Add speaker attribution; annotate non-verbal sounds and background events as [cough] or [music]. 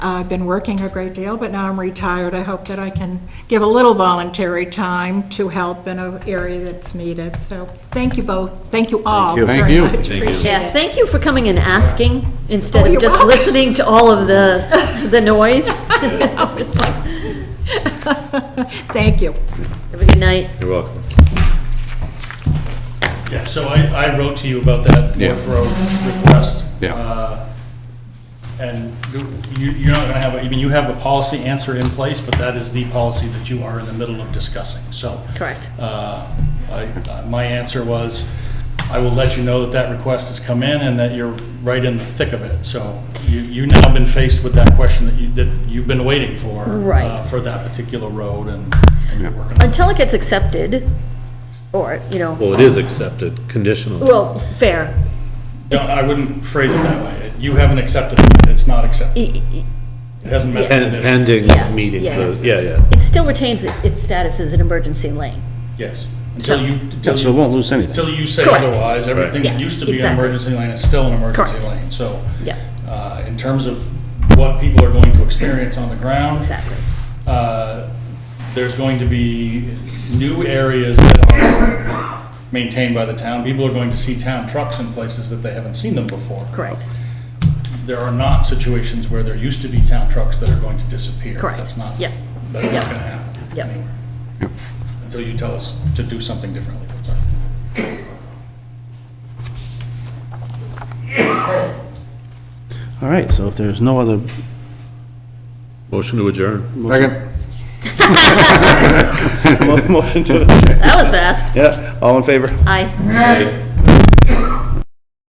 Speaker 1: I've been working a great deal, but now I'm retired. I hope that I can give a little voluntary time to help in an area that's needed. So thank you both, thank you all
Speaker 2: you.
Speaker 1: very
Speaker 2: Thank you.
Speaker 1: much.
Speaker 3: Thank you.
Speaker 1: Appreciate
Speaker 4: Yeah,
Speaker 1: it.
Speaker 4: thank you for coming and asking instead
Speaker 1: Oh,
Speaker 4: of
Speaker 1: you're
Speaker 4: just
Speaker 1: welcome.
Speaker 4: listening to all
Speaker 1: [laughs]
Speaker 4: of the, the noise.
Speaker 1: Thank you.
Speaker 4: Have a good night.
Speaker 3: You're welcome.
Speaker 5: Yeah, so I, I wrote to you about that
Speaker 2: Yeah.
Speaker 5: Wharf Road request.
Speaker 2: Yeah.
Speaker 5: Uh, And you, you're not gonna have, a- I mean, you have a policy answer in place, but that is the policy that you are in the middle of discussing, so.
Speaker 4: Correct.
Speaker 5: Uh, I- uh, My answer was, I will let you know that that request has come in and that you're right in the thick of it. So you, you now been faced with that question that you, that you've been waiting for.
Speaker 4: Right.
Speaker 5: uh, For that particular road and and you're working on it.
Speaker 4: Until it gets accepted, or, you know,
Speaker 3: Well, it is accepted, conditional.
Speaker 4: well, fair.
Speaker 5: No, I wouldn't phrase it that way. You haven't accepted it, it's not accepted.
Speaker 4: E- e-
Speaker 5: It hasn't met the
Speaker 3: Pen-
Speaker 5: condition.
Speaker 3: Pending
Speaker 4: Yeah,
Speaker 3: meeting,
Speaker 4: yeah.
Speaker 3: the- yeah, yeah.
Speaker 4: It still retains its status as an emergency lane.
Speaker 5: Yes. Until
Speaker 2: Yeah,
Speaker 5: you, until
Speaker 2: so it
Speaker 5: you,
Speaker 2: won't lose anything.
Speaker 5: until you say
Speaker 4: Correct.
Speaker 5: otherwise, everything
Speaker 4: Yeah,
Speaker 5: that used to be an
Speaker 4: exactly.
Speaker 5: emergency lane is still an emergency
Speaker 4: Correct.
Speaker 5: lane. So,
Speaker 4: Yeah,
Speaker 5: uh, in terms of what people are going to experience on the ground,
Speaker 4: exactly.
Speaker 5: uh, there's going to be new areas that are maintained by the town. People are going to see town trucks in places that they haven't seen them before.
Speaker 4: Correct.
Speaker 5: There are not situations where there used to be town trucks that are going to disappear.
Speaker 4: Correct.
Speaker 5: That's not,
Speaker 4: Yep.
Speaker 5: that's not going to
Speaker 4: Yep.
Speaker 5: happen
Speaker 4: Yep.
Speaker 5: anywhere. Until you tell us to do something differently.
Speaker 2: All right, so if there's no other.
Speaker 3: Motion to adjourn.
Speaker 2: Motion to,
Speaker 4: That was fast.
Speaker 2: yeah, all in favor?
Speaker 4: Aye.
Speaker 3: Okay.